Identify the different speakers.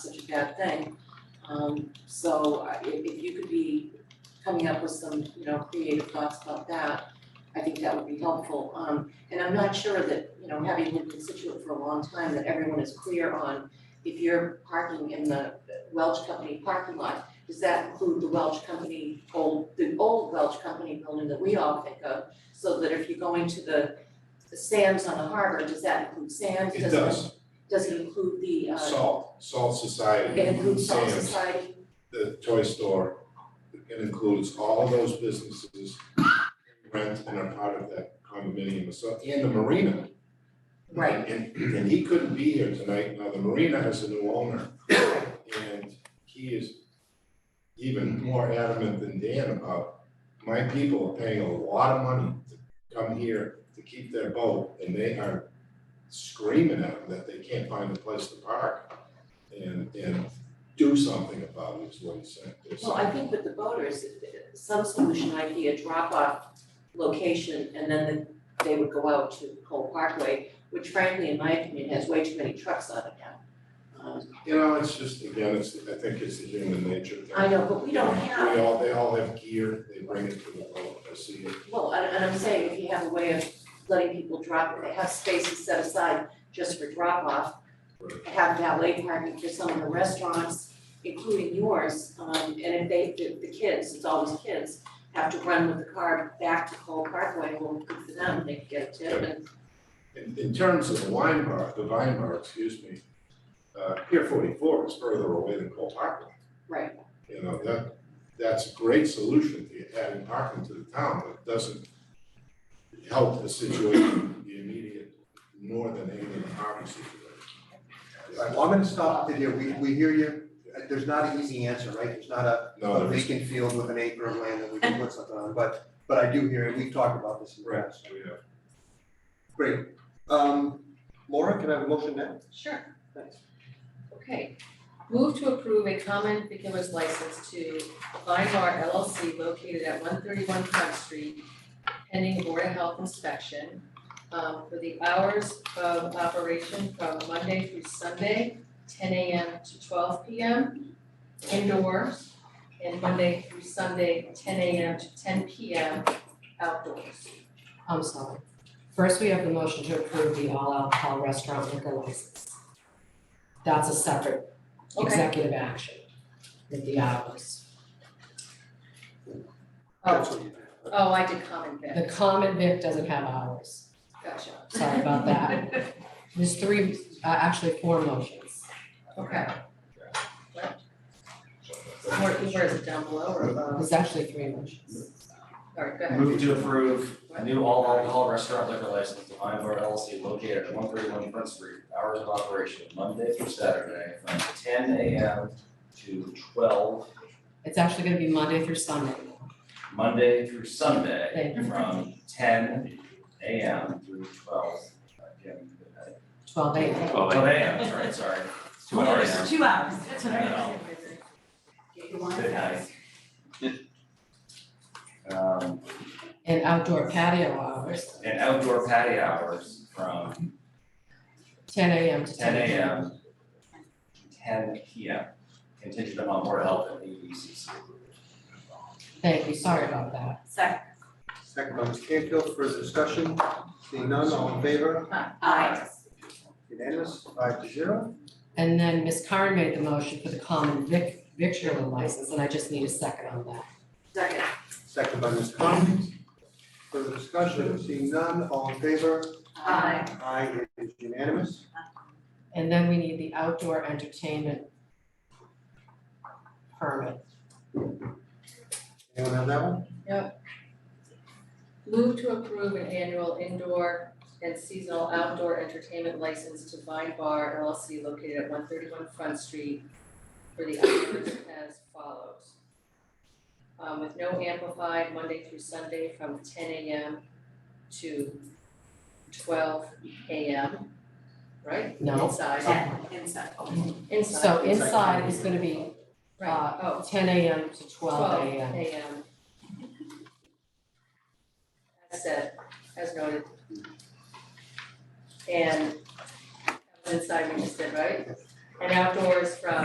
Speaker 1: such a bad thing. Um, so I- if, if you could be coming up with some, you know, creative thoughts about that, I think that would be helpful. Um, and I'm not sure that, you know, having lived in Situate for a long time, that everyone is clear on if you're parking in the Welch Company parking lot, does that include the Welch Company old, the old Welch Company building that we all think of? So that if you're going to the the Sam's on the harbor, does that include Sam's?
Speaker 2: It
Speaker 1: Does
Speaker 2: does,
Speaker 1: Does it include the uh?
Speaker 2: Salt, Salt Society,
Speaker 1: It includes Salt
Speaker 2: Sam's,
Speaker 1: Society,
Speaker 2: the toy store, it includes all those businesses rent and are part of that condominium, so, and the marina.
Speaker 1: right,
Speaker 2: And, and he couldn't be here tonight, now the marina has a new owner, and he is even more adamant than Dan about, my people are paying a lot of money to come here to keep their boat, and they are screaming at them that they can't find a place to park, and, and do something about it, is what he said. There's
Speaker 1: well, I think with the boaters, some solution might be a drop off location and then the- they would go out to Cole Parkway, which frankly, in my opinion, has way too many trucks on it now. Um,
Speaker 2: You know, it's just, again, it's, I think it's the human nature thing.
Speaker 1: I know, but we don't have,
Speaker 2: We all, they all have gear, they bring it to the boat, I see it.
Speaker 1: well, and and I'm saying if you have a way of letting people drop, they have spaces set aside just for drop off, have valet parking for some of the restaurants, including yours, um, and if they, the, the kids, it's always kids, have to run with the car back to Cole Parkway, well, good for them, they can get a tip, and
Speaker 2: In, in terms of the wine bar, the vine bar, excuse me, uh, Pier forty-four is further away than Cole Parkway.
Speaker 1: Right.
Speaker 2: You know, that, that's a great solution to adding parking to the town, but it doesn't help the situation, the immediate northern end of the parking situation.
Speaker 3: All right, well, I'm gonna stop it there, we, we hear you, Uh, there's not an easy answer, right, there's not a,
Speaker 2: No,
Speaker 3: a
Speaker 2: Oh, there's,
Speaker 3: vacant field with an acre of land that we can put something on, but, but I do hear, it. we've talked about this in the
Speaker 2: right,
Speaker 3: past.
Speaker 2: we have,
Speaker 3: Great, um, Laura, can I have a motion now?
Speaker 4: Sure,
Speaker 3: Thanks.
Speaker 4: okay. Move to approve a common vicular's license to Vine Bar LLC located at one thirty-one Front Street pending Board of Health inspection um, for the hours of operation from Monday through Sunday, ten AM to twelve PM indoors, and Monday through Sunday, ten AM to ten PM outdoors.
Speaker 5: I'm sorry. First, we have the motion to approve the all alcohol restaurant liquor license. That's a separate
Speaker 4: Okay.
Speaker 5: executive action with the hours.
Speaker 3: That's
Speaker 4: Oh,
Speaker 3: what you do.
Speaker 4: oh, I did common vic,
Speaker 5: The common vic doesn't have hours.
Speaker 4: gotcha.
Speaker 5: Sorry about that. There's three, uh, actually four motions.
Speaker 4: Okay.
Speaker 2: so-
Speaker 4: Where, where is it, down below or above?
Speaker 5: There's actually three motions.
Speaker 4: Alright, go ahead.
Speaker 6: Move to approve a new all alcohol restaurant liquor license to Vine Bar LLC located at one thirty-one Front Street. Hours of operation, Monday through Saturday, from ten AM to twelve,
Speaker 5: It's actually gonna be Monday through Sunday.
Speaker 6: Monday through Sunday,
Speaker 5: Thank you.
Speaker 6: from ten AM through twelve. uh, PM.
Speaker 5: Twelve a.m.
Speaker 6: Twelve AM, sorry, sorry. Two hours.
Speaker 7: Two hours,
Speaker 4: That's
Speaker 6: what I know. Good night. Um,
Speaker 5: and outdoor patio hours,
Speaker 6: and outdoor patio hours from
Speaker 5: ten a.m. to
Speaker 6: ten
Speaker 5: ten p.m.
Speaker 6: AM, ten PM, contingent upon board of health and ABCC.
Speaker 5: Thank you, sorry about that.
Speaker 7: second,
Speaker 3: Second by Ms. Canfield, further discussion, seeing none, all in favor,
Speaker 7: aye,
Speaker 3: unanimous, five to zero.
Speaker 5: And then Ms. Karen made the motion for the common vic, victular license, and I just need a second on that.
Speaker 1: second,
Speaker 3: Second by Ms. Conlon, further discussion, seeing none, all in favor,
Speaker 7: aye,
Speaker 3: aye, it is unanimous.
Speaker 5: And then we need the outdoor entertainment permit.
Speaker 3: Anyone have that one?
Speaker 4: Move to approve an annual indoor and seasonal outdoor entertainment license to Vine Bar LLC located at one thirty-one Front Street for the hours as follows. Um, with no amplified Monday through Sunday from ten AM to twelve AM, right?
Speaker 5: No,
Speaker 4: Inside,
Speaker 7: ten, inside,
Speaker 4: inside.
Speaker 5: so inside is gonna be
Speaker 4: Right, oh,
Speaker 5: Uh, ten AM to twelve AM.
Speaker 4: AM. As said, as noted. And that was inside we just did, right? And outdoors from